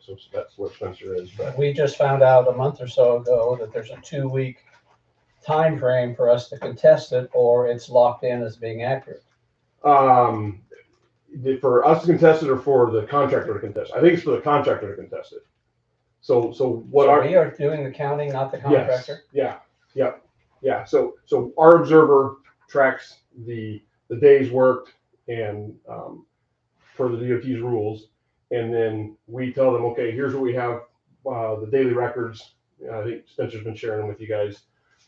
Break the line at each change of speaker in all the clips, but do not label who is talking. Spencer's, that's where Spencer is, but
We just found out a month or so ago that there's a two-week time frame for us to contest it, or it's locked in as being accurate.
um, the- for us to contest it or for the contractor to contest? I think it's for the contractor to contest it. So, so what
So
are?
We are doing the counting, not the
Yes.
contractor.
Yeah, yep, yeah. So, so our observer tracks the, the days worked and, um, for the DOT's rules. And then we tell them, okay, here's what we have, uh, the daily records. I think Spencer's been sharing them with you guys,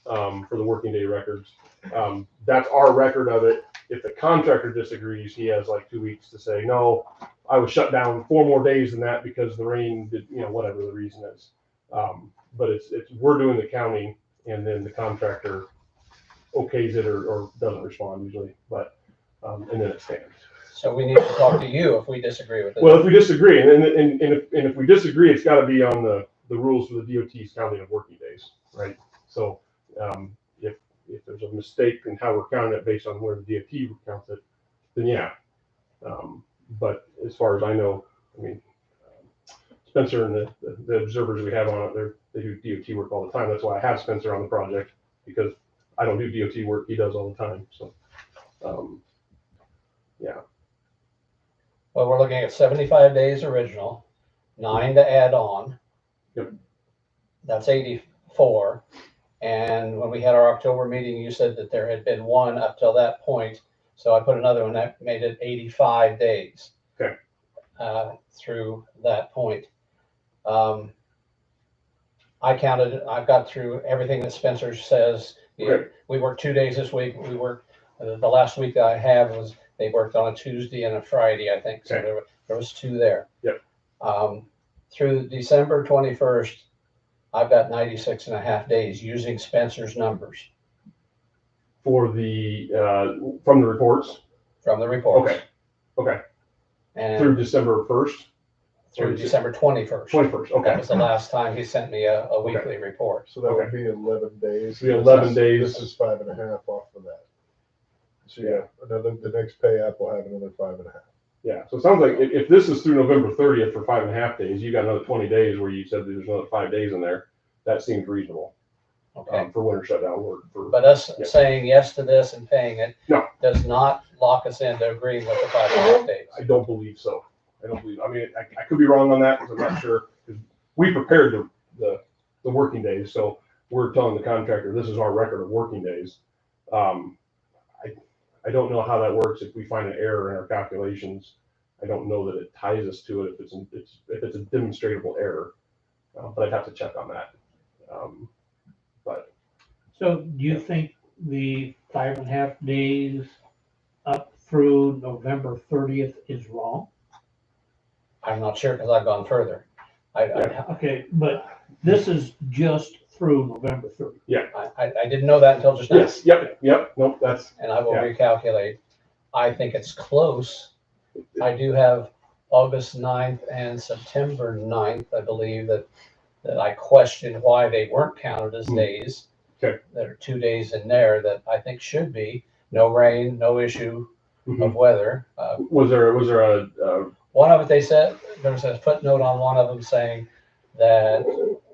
um, for the working day records. Um, that's our record of it. If the contractor disagrees, he has like two weeks to say, no, I was shut down four more days than that because the rain did, you know, whatever the reason is. Um, but it's, it's, we're doing the counting and then the contractor okays it or, or doesn't respond usually, but, um, and then it stands.
So we need to talk to you if we disagree with it.
Well, if we disagree, and, and, and, and if, and if we disagree, it's gotta be on the, the rules for the DOT's counting of working days, right? So, um, if, if there's a mistake in how we're counting it based on where the DOT counts it, then yeah. Um, but as far as I know, I mean, um, Spencer and the, the- the observers we have on it, they're, they do DOT work all the time. That's why I have Spencer on the project, because I don't do DOT work, he does all the time, so. Um,
Well, we're looking at seventy-five days original, nine to add on.
Yep.
That's eighty-four. And when we had our October meeting, you said that there had been one up till that point. So I put another one that made it eighty-five days.
Okay.
Uh, through that point. Um, I counted, I've got through everything that Spencer says.
Right.
We worked two days this week. We worked, uh, the the last week that I had was they worked on a Tuesday and a Friday, I think, so
Okay.
there were, there was two there.
Yep.
Um, through December twenty-first, I've got 96 and a half days using Spencer's numbers
for the, uh, from the reports,
from the reports.
Okay. Okay. Through
And
December first,
through December twenty-first.
twenty-first,
That
okay.
was the last time he sent me a, a weekly report.
So that would be eleven days.
Be 11
This is-
days.
This is five and a half off of that. So yeah, another, the next pay app will have another five and a half.
Yeah, so it sounds like if, if this is through November thirtieth for five and a half days, you got another twenty days where you said that there's another five days in there. That seems reasonable,
Okay.
um, for winter shutdown work for,
But us
Yeah.
saying yes to this and paying it
No.
does not lock us into agreeing with the five and a half days.
I don't believe so. I don't believe, I mean, I, I could be wrong on that, because I'm not sure. 'Cause We prepared the, the, the working days, so we're telling the contractor, this is our record of working days. Um, I, I don't know how that works if we find an error in our calculations. I don't know that it ties us to it if it's, it's, if it's a demonstrable error, Uh, but I'd have to check on that. Um,
So do you think the five and a half days up through November thirtieth is wrong?
I'm not sure because I've gone further. I, I,
Yeah.
Okay, but this is just through November thirtieth.
I, I- I didn't know that until just now.
Yes, yep, yep, nope, that's,
and I will
Yeah.
recalculate. I think it's close. I do have August 9th and September 9th, I believe, that, that I questioned why they weren't counted as
Hmm.
days.
Okay.
There are two days in there that I think should be, no rain, no issue
mhm.
of weather. Uh,
was there, was there a, uh,
one of it, they said, there was a footnote on one of them saying that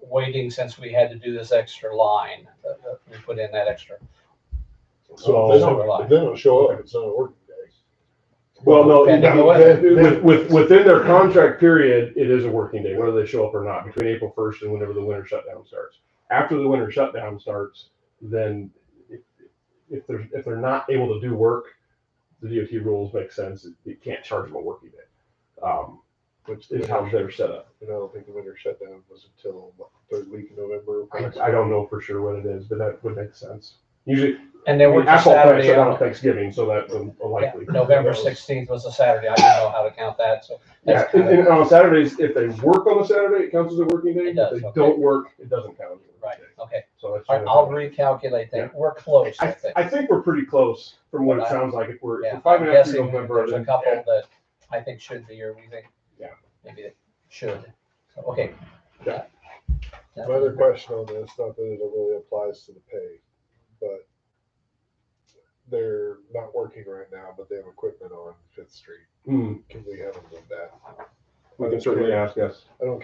waiting since we had to do this extra line, that- that we put in that extra.
So-
If they
Silver
don't-
line.
if they don't show up, it's not a working day.
well, no,
Depending on the weather.
With, with, within their contract period, it is a working day, whether they show up or not, between April first and whenever the winter shutdown starts. After the winter shutdown starts, then if, if they're, if they're not able to do work, the DOT rules make sense, you can't charge them a working day. Um,
Which
is how they're set up.
And I don't think the winter shutdown was until what, third week of November.
I, I don't know for sure what it is, but that would make sense. Usually,
And they were
asphalt plant
Saturday.
shut
on-
down on Thanksgiving, so that's a
um, Yeah,
likely.
November sixteenth was a Saturday. I didn't know how to count that, so.
Yeah,
that's
and,
kind
and uh,
of-
on Saturdays, if they work on a Saturday, it counts as a working day.
It
If
does,
they
okay.
don't work, it doesn't count. as a working
Right,
day.
okay.
So that's.
All right, I'll recalculate
Yeah.
that. We're close, I
I,
think.
I think we're pretty close from what it
But I-
sounds like. If we're, if
Yeah,
we're five
I'm
and a half through
guessing
November.
there's a
then-
couple that I think should be, or we think.
Yeah.
Maybe they should. So, Okay.
Yeah.
Yeah.
Another question on this, not that it really applies to the pay, but they're not working right now, but they have equipment on Fifth Street.
Hmm,
Can we have them do that?
we can certainly ask, yes.
I don't care